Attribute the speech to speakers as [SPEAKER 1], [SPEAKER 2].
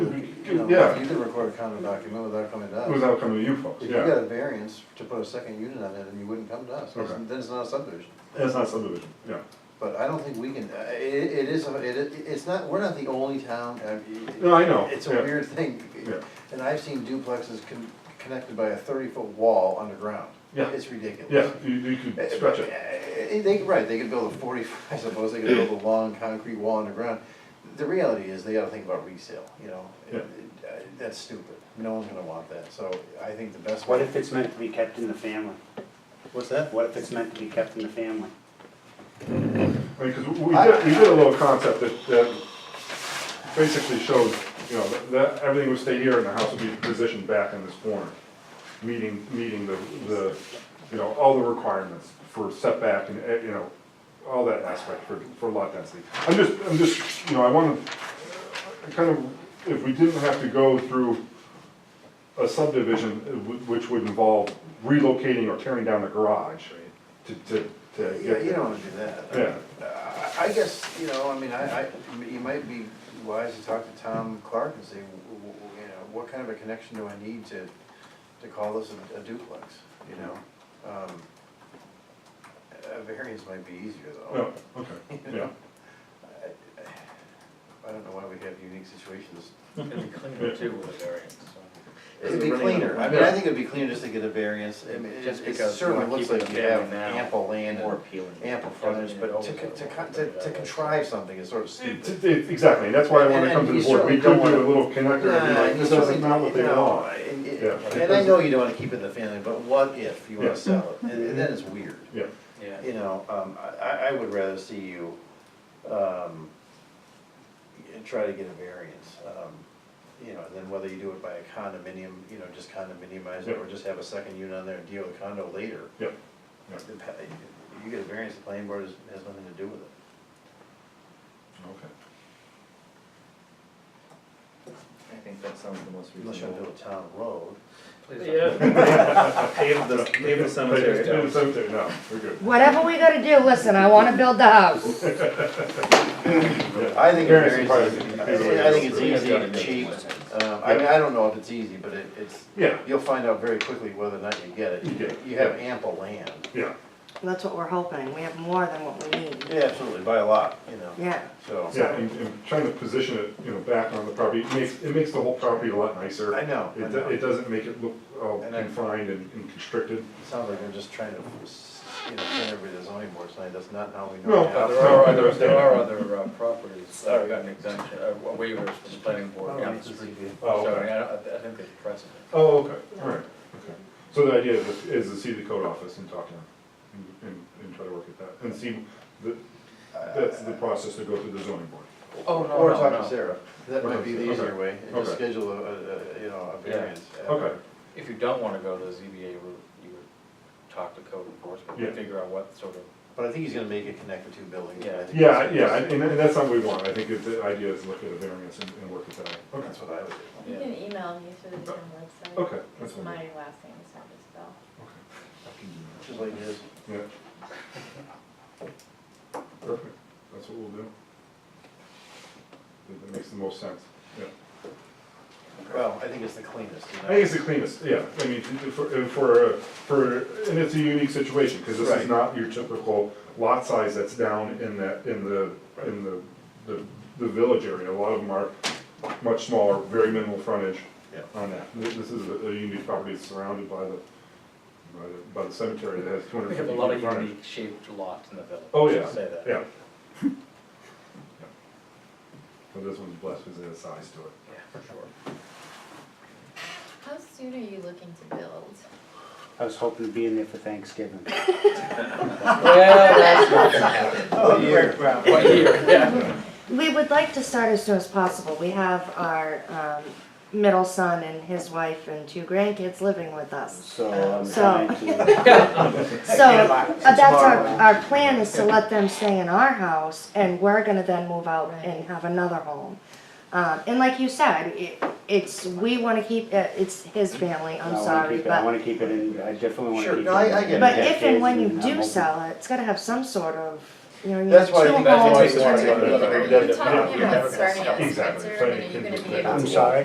[SPEAKER 1] you know,
[SPEAKER 2] Yeah.
[SPEAKER 1] you could record a common document without coming to us.
[SPEAKER 2] without coming to you folks,
[SPEAKER 1] If you
[SPEAKER 2] yeah.
[SPEAKER 1] got a variance to put a second unit on it and you wouldn't come to us,
[SPEAKER 2] Okay.
[SPEAKER 1] then it's not a subdivision.
[SPEAKER 2] That's not subdivision, yeah.
[SPEAKER 1] But I don't think we can, uh, it, it is, a- it, it- it's not, we're not the only town, I mean.
[SPEAKER 2] No, I know,
[SPEAKER 1] It's a
[SPEAKER 2] yeah.
[SPEAKER 1] weird thing.
[SPEAKER 2] Yeah.
[SPEAKER 1] And I've seen duplexes con- connected by a thirty-foot wall underground.
[SPEAKER 2] Yeah.
[SPEAKER 1] It's ridiculous.
[SPEAKER 2] Yeah, you, you
[SPEAKER 1] Uh,
[SPEAKER 2] could stretch it,
[SPEAKER 1] uh, They, right, they could build a forty, I suppose they could build a long concrete wall underground. The reality is, they gotta think about resale, you know?
[SPEAKER 2] Yeah.
[SPEAKER 1] Uh, That's stupid, no one's gonna want that, so I think the best.
[SPEAKER 3] What if it's meant to be kept in the family?
[SPEAKER 1] What's that?
[SPEAKER 3] What if it's meant to be kept in the family?
[SPEAKER 2] I mean, cause we we did, we did a little concept that, that basically showed, you know, that- that, everything would stay here and the house would be positioned back in this corner. Meeting, meeting the, the, you know, all the requirements for setback and, eh, you know, all that aspect for, for lot density. I'm just, I'm just, you know, I wanna, I kind of, if we didn't have to go through a subdivision uh, wh- which would involve relocating or tearing down the garage to, to, to
[SPEAKER 1] Yeah,
[SPEAKER 2] get
[SPEAKER 1] you
[SPEAKER 2] there.
[SPEAKER 1] don't wanna do that.
[SPEAKER 2] Yeah.
[SPEAKER 1] Uh, I guess, you know, I mean, I, I, you might be wise to talk to Tom Clark and say, w- w- w- you know, what kind of a connection do I need to, to call this a- a duplex, you know? Um, A variance might be easier
[SPEAKER 2] Yeah,
[SPEAKER 1] though.
[SPEAKER 2] Oh, okay, yeah.
[SPEAKER 1] I don't know why we have unique situations.
[SPEAKER 4] It'd be cleaner too with a variance, so.
[SPEAKER 1] It'd be cleaner, I mean, I think it'd be cleaner just to get a variance, I mean, it
[SPEAKER 4] Just
[SPEAKER 1] it
[SPEAKER 4] because
[SPEAKER 1] certainly
[SPEAKER 4] we're
[SPEAKER 1] looks
[SPEAKER 4] keeping
[SPEAKER 1] like
[SPEAKER 4] the
[SPEAKER 1] you have
[SPEAKER 4] family now
[SPEAKER 1] ample land
[SPEAKER 4] more
[SPEAKER 1] and
[SPEAKER 4] appealing.
[SPEAKER 1] ample frontage, but to, con- to, con- to to contrive something is sort of stupid.
[SPEAKER 2] It- it- it- Exactly, and that's why I wanted to come to the board, we could do a little connector and be like, this doesn't not what they
[SPEAKER 1] No,
[SPEAKER 2] want.
[SPEAKER 1] and- and-
[SPEAKER 2] Yeah.
[SPEAKER 1] And I know you don't wanna keep it in the family, but what if you
[SPEAKER 2] Yeah.
[SPEAKER 1] wanna sell it, and and then it's weird.
[SPEAKER 2] Yeah,
[SPEAKER 1] You know, um, I- I, I would rather see you, um, y- try to get a variance, um, you know, and then whether you do it by a condominium, you know, just condominiumize it, or just have a second unit on there and deal with condo later.
[SPEAKER 2] yeah, yeah,
[SPEAKER 1] the pa- You get a variance, the planning board has, has nothing to do with it.
[SPEAKER 2] okay.
[SPEAKER 4] I think that sounds the most
[SPEAKER 1] Unless you wanna
[SPEAKER 4] reasonable. uh,
[SPEAKER 1] build a town road.
[SPEAKER 4] Yeah. Pave the, pave the cemetery
[SPEAKER 2] Pay the
[SPEAKER 4] down.
[SPEAKER 2] cemetery, no, we're good.
[SPEAKER 5] Whatever we gotta do, listen, I wanna build the house.
[SPEAKER 2] Yeah.
[SPEAKER 1] I think a
[SPEAKER 2] Variance is
[SPEAKER 1] variance,
[SPEAKER 2] probably-
[SPEAKER 1] is-
[SPEAKER 2] is the way
[SPEAKER 1] I I think
[SPEAKER 2] is.
[SPEAKER 1] it's
[SPEAKER 4] uh,
[SPEAKER 1] easy and cheap. Um, I mean, I don't know if it's easy, but it, it's,
[SPEAKER 2] Yeah,
[SPEAKER 1] you'll find out very quickly whether or not you get it.
[SPEAKER 2] You
[SPEAKER 1] You
[SPEAKER 2] get it.
[SPEAKER 1] you have ample land.
[SPEAKER 2] yeah,
[SPEAKER 5] That's what we're hoping, we have more than what we need,
[SPEAKER 1] Yeah, absolutely, by a lot, you know.
[SPEAKER 5] yeah.
[SPEAKER 1] So,
[SPEAKER 2] yeah, and, and trying to position it, you know, back on the property, it makes, it makes the whole property a lot nicer.
[SPEAKER 1] I know, I
[SPEAKER 2] It, do-
[SPEAKER 1] know.
[SPEAKER 2] it doesn't make it look all
[SPEAKER 1] And I-
[SPEAKER 2] confined and and constricted.
[SPEAKER 1] it sounds like we're just trying to, you know, send everybody to the zoning board tonight, that's not how we
[SPEAKER 2] No,
[SPEAKER 1] know.
[SPEAKER 2] but
[SPEAKER 4] Uh, There
[SPEAKER 1] how-
[SPEAKER 4] are other, there are other uh, properties, that got an exemption, uh, waivers from the planning
[SPEAKER 1] Oh,
[SPEAKER 4] board.
[SPEAKER 1] yeah,
[SPEAKER 4] yeah.
[SPEAKER 1] it's easy.
[SPEAKER 2] Oh,
[SPEAKER 4] Sorry,
[SPEAKER 2] okay,
[SPEAKER 4] I don't, I think there's precedent.
[SPEAKER 2] oh, okay, all right, okay. So the idea is, is to see the code office and talk to them, and- and, and try to work at that, and see the, That's the process to go through the zoning board.
[SPEAKER 4] Oh, no,
[SPEAKER 1] Or
[SPEAKER 4] no,
[SPEAKER 1] talk
[SPEAKER 4] no.
[SPEAKER 1] to Sarah, that might be the
[SPEAKER 2] Okay.
[SPEAKER 1] easier way, and just
[SPEAKER 2] Okay.
[SPEAKER 1] schedule a, a, a, you know, a
[SPEAKER 4] Yeah.
[SPEAKER 1] variance.
[SPEAKER 2] Okay,
[SPEAKER 4] If you don't wanna go the ZBA route, you would talk to code enforcement,
[SPEAKER 2] Yeah.
[SPEAKER 4] and figure out what sort of
[SPEAKER 1] But I think he's gonna make it connect the two buildings.
[SPEAKER 4] Yeah.
[SPEAKER 1] I think
[SPEAKER 2] yeah,
[SPEAKER 1] that's-
[SPEAKER 2] yeah, and, and that's not what we want, I think if the idea is look at a variance and, and work with that. Okay,
[SPEAKER 1] That's what I would do.
[SPEAKER 6] You can email me through the town website.
[SPEAKER 2] Oh, Okay, that's
[SPEAKER 6] It's
[SPEAKER 2] fine.
[SPEAKER 6] my last name, it's not just spell.
[SPEAKER 1] Just like his.
[SPEAKER 2] yeah. Perfect, that's what we'll do. That- That makes the most sense, yeah.
[SPEAKER 1] Well, I think it's the cleanest. you
[SPEAKER 2] I
[SPEAKER 1] know.
[SPEAKER 2] think it's the cleanest, yeah, I mean, for, for, for, and it's a unique situation, because this
[SPEAKER 1] Right.
[SPEAKER 2] is not your typical lot size that's down in that, in the, in the, the, the village area, a lot of them are much smaller, very minimal frontage
[SPEAKER 1] Yeah.
[SPEAKER 2] on that. This this is a a unique property that's surrounded by the, by the, by the cemetery that has two
[SPEAKER 4] We
[SPEAKER 2] hundred
[SPEAKER 4] have a
[SPEAKER 2] fifty
[SPEAKER 4] lot of
[SPEAKER 2] feet frontage.
[SPEAKER 4] unique shaped lots in the village.
[SPEAKER 2] Oh,
[SPEAKER 4] I'll
[SPEAKER 2] yeah,
[SPEAKER 4] Say that.
[SPEAKER 2] yeah. Yeah. But this one's blessed because it has size to it.
[SPEAKER 4] Yeah, for sure.
[SPEAKER 6] How soon are you looking to build?
[SPEAKER 3] I was hoping to be in there for Thanksgiving.
[SPEAKER 4] Well, that's
[SPEAKER 3] Oh,
[SPEAKER 1] yeah.
[SPEAKER 4] What year, yeah.
[SPEAKER 5] We would like to start as soon as possible, we have our, um, middle son and his wife and two grandkids living with us.
[SPEAKER 3] So I'm
[SPEAKER 5] So-
[SPEAKER 3] trying to,
[SPEAKER 5] So, uh, that's our,
[SPEAKER 3] Tomorrow.
[SPEAKER 5] our plan is to let them stay in our house, and we're gonna then move out and have another home. Um, and like you said, it, it's, we wanna keep, uh, it's his family,
[SPEAKER 3] I
[SPEAKER 5] I'm
[SPEAKER 3] wanna
[SPEAKER 5] sorry,
[SPEAKER 3] keep it,
[SPEAKER 5] but.
[SPEAKER 3] I wanna keep it in, I definitely wanna
[SPEAKER 1] Sure,
[SPEAKER 3] keep it.
[SPEAKER 1] no, I- I
[SPEAKER 3] in-
[SPEAKER 1] get it.
[SPEAKER 5] But
[SPEAKER 3] in
[SPEAKER 5] if and when
[SPEAKER 3] decades,
[SPEAKER 5] you
[SPEAKER 3] and I'm
[SPEAKER 5] do
[SPEAKER 3] hoping-
[SPEAKER 5] sell it, it's gotta have some sort of, you know, you
[SPEAKER 1] That's
[SPEAKER 5] have
[SPEAKER 1] why-
[SPEAKER 5] two
[SPEAKER 1] that's why
[SPEAKER 5] homes.
[SPEAKER 1] we wanted
[SPEAKER 5] two
[SPEAKER 1] to-
[SPEAKER 5] different-
[SPEAKER 6] You're
[SPEAKER 2] yeah,
[SPEAKER 6] talking
[SPEAKER 2] yeah,
[SPEAKER 6] about
[SPEAKER 2] yeah.
[SPEAKER 6] starting at
[SPEAKER 2] Exactly.
[SPEAKER 6] Spencer, and are you gonna be able to?
[SPEAKER 3] I'm sorry.